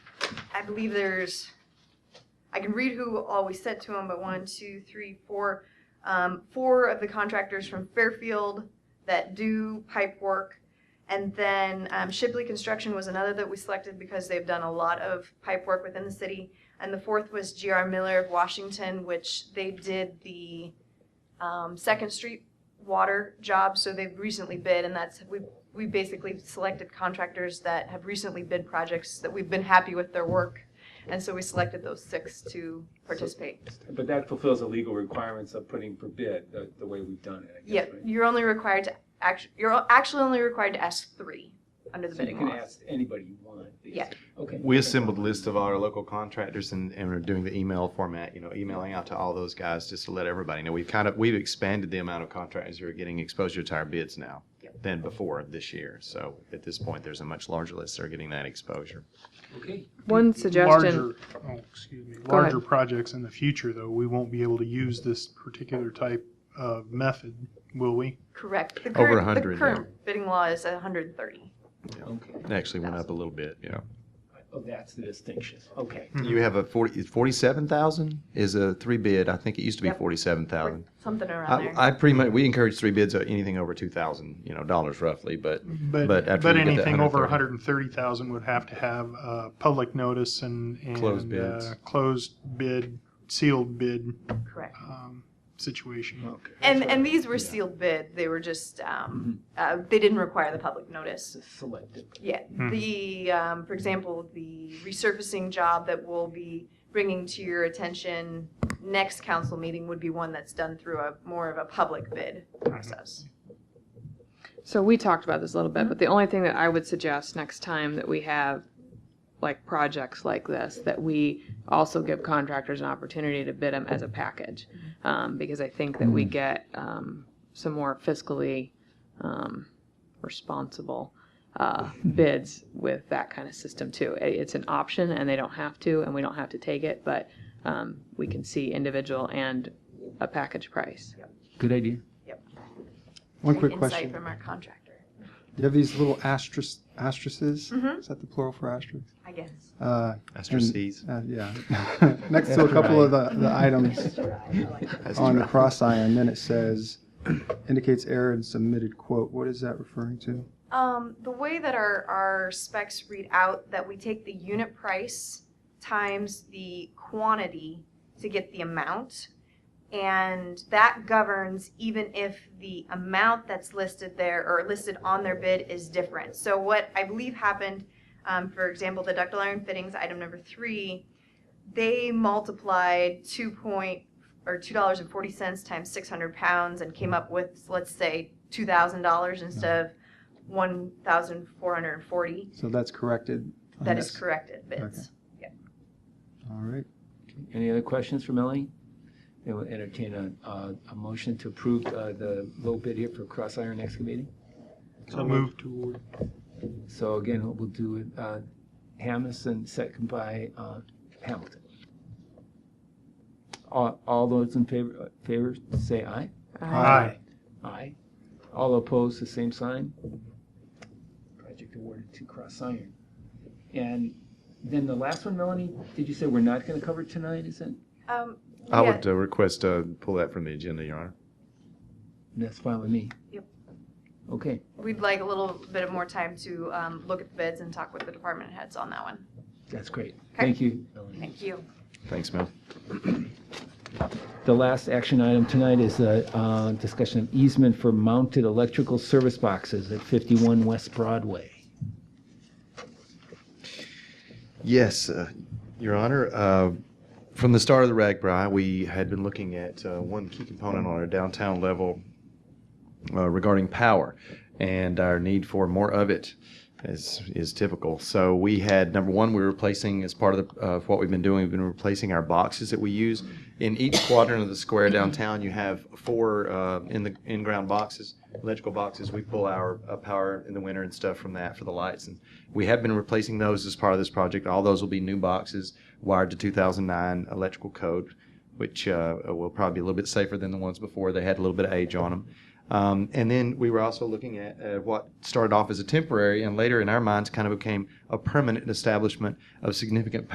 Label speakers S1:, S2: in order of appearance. S1: I believe there's, I can read who all we sent to them, but one, two, three, four, um, four of the contractors from Fairfield that do pipe work. And then um, Shipley Construction was another that we selected because they've done a lot of pipe work within the city. And the fourth was GR Miller of Washington, which they did the um, Second Street water job. So they've recently bid, and that's we we basically selected contractors that have recently bid projects that we've been happy with their work. And so we selected those six to participate.
S2: But that fulfills the legal requirements of putting for bid, the, the way we've done it, I
S1: Yeah,
S2: guess, right?
S1: you're only required to act, you're actually only required to ask three under the
S2: So you
S1: bidding
S2: can
S1: law.
S2: ask anybody you want.
S1: Yeah.
S2: basically. Okay.
S3: We assembled a list of our local contractors and, and we're doing the email format, you know, emailing out to all those guys just to let everybody know. We've kind of, we've expanded the amount of contractors who are getting exposure to our bids now than before this year. So at this point, there's a much larger list that are getting that exposure.
S2: Okay.
S4: One suggestion,
S5: Larger, oh, excuse me,
S4: Go ahead.
S5: larger projects in the future, though, we won't be able to use this particular type of method, will we?
S1: Correct. The
S3: Over
S1: current-
S3: 100,
S1: The
S3: yeah.
S1: current bidding law is 130.
S2: Okay.
S3: It actually went up a little bit, yeah.
S2: Oh, that's the distinction. Okay.
S6: Mm-hmm.
S3: You have a forty, forty-seven thousand is a three bid. I think it used to be
S1: Yep.
S3: forty-seven thousand.
S1: Something around
S3: I,
S1: there.
S3: I pretty much, we encourage three bids, uh, anything over two thousand, you know, dollars roughly, but
S5: But,
S3: But after
S5: but
S3: you get the
S5: anything over
S3: 130,000
S5: 130,000 would have to have uh, public notice and, and
S3: Closed bids.
S5: uh, closed bid, sealed bid
S1: Correct.
S5: um, situation.
S2: Okay.
S1: And,
S2: That's
S1: and
S2: right.
S1: these were
S2: Yeah.
S1: sealed bid. They were just, um, uh, they didn't require the public notice.
S2: It's a Selective.
S1: Yeah, the, um, for example, the resurfacing job that we'll be bringing to your attention next council meeting would be one that's done through a, more of a public bid process.
S4: so we talked about this a little bit, but the only thing that I would suggest next time that we have like projects like this, that we also give contractors an opportunity to bid them as a package. Um, because I think that we get, um, some more fiscally, um, responsible, uh, bids with that kind of system too. I- It's an option and they don't have to, and we don't have to take it, but, um, we can see individual and a package price.
S7: Good idea.
S6: One quick
S1: Insight
S6: question.
S1: From our contractor,
S6: You have these little asterisk, asterisks?
S1: Mhm.
S6: Is that the plural for asterisk?
S1: I guess.
S6: Uh,
S3: asterisks.
S6: uh, yeah. Next to a couple of the, the items on the cross iron, then it says indicates error in submitted quote. What is that referring to?
S1: Um, the way that our, our specs read out, that we take the unit price times the quantity to get the amount. And that governs even if the amount that's listed there or listed on their bid is different. So what I believe happened, um, for example, the ductile iron fittings, item number three, they multiplied two point, or two dollars and forty cents times six hundred pounds and came up with, let's say, two thousand dollars instead of one thousand four hundred and forty.
S6: So that's corrected. on
S1: That is
S6: this.
S1: corrected bids.
S6: All right.
S7: Any other questions for Melanie? They will entertain a, a, a motion to approve uh, the low bid here for cross iron excavating.
S5: So move toward.
S7: So again, we'll do it, uh, Hammes and second by, uh, Hamilton. All, all those in favor, uh, favor, say aye.
S5: Aye.
S7: Aye. All opposed, the same sign. Project awarded to Cross Iron. And then the last one, Melanie, did you say we're not gonna cover tonight, is it?
S1: Um,
S3: I
S1: yeah,
S3: would uh, request, uh, pull that from the agenda, Your Honor.
S7: That's fine with me.
S1: Yep.
S7: Okay.
S1: We'd like a little bit of more time to um, look at the bids and talk with the department heads on that one.
S7: That's great.
S1: Okay.
S7: Thank you. Melanie.
S1: Thank you.
S3: Thanks, Mel.
S7: The last action item tonight is a uh, discussion of easement for mounted electrical service boxes at 51 West Broadway.
S3: Yes, uh, Your Honor. Uh, from the start of the RAGBRAI, we had been looking at uh, one key component on our downtown level uh, regarding power and our need for more of it, as is typical. So we had number one, we were replacing as part of, the, of what we've been doing, we've been replacing our boxes that we use in each quadrant of the square downtown. You have four uh, in the in-ground boxes, electrical boxes. We pull our uh, power in the winter and stuff from that for the lights and we have been replacing those as part of this project. All those will be new boxes wired to 2009 electrical code, which uh, will probably be a little bit safer than the ones before. They had a little bit of age on them. Um, and then we were also looking at uh, what started off as a temporary and later in our minds kind of became a permanent establishment of significant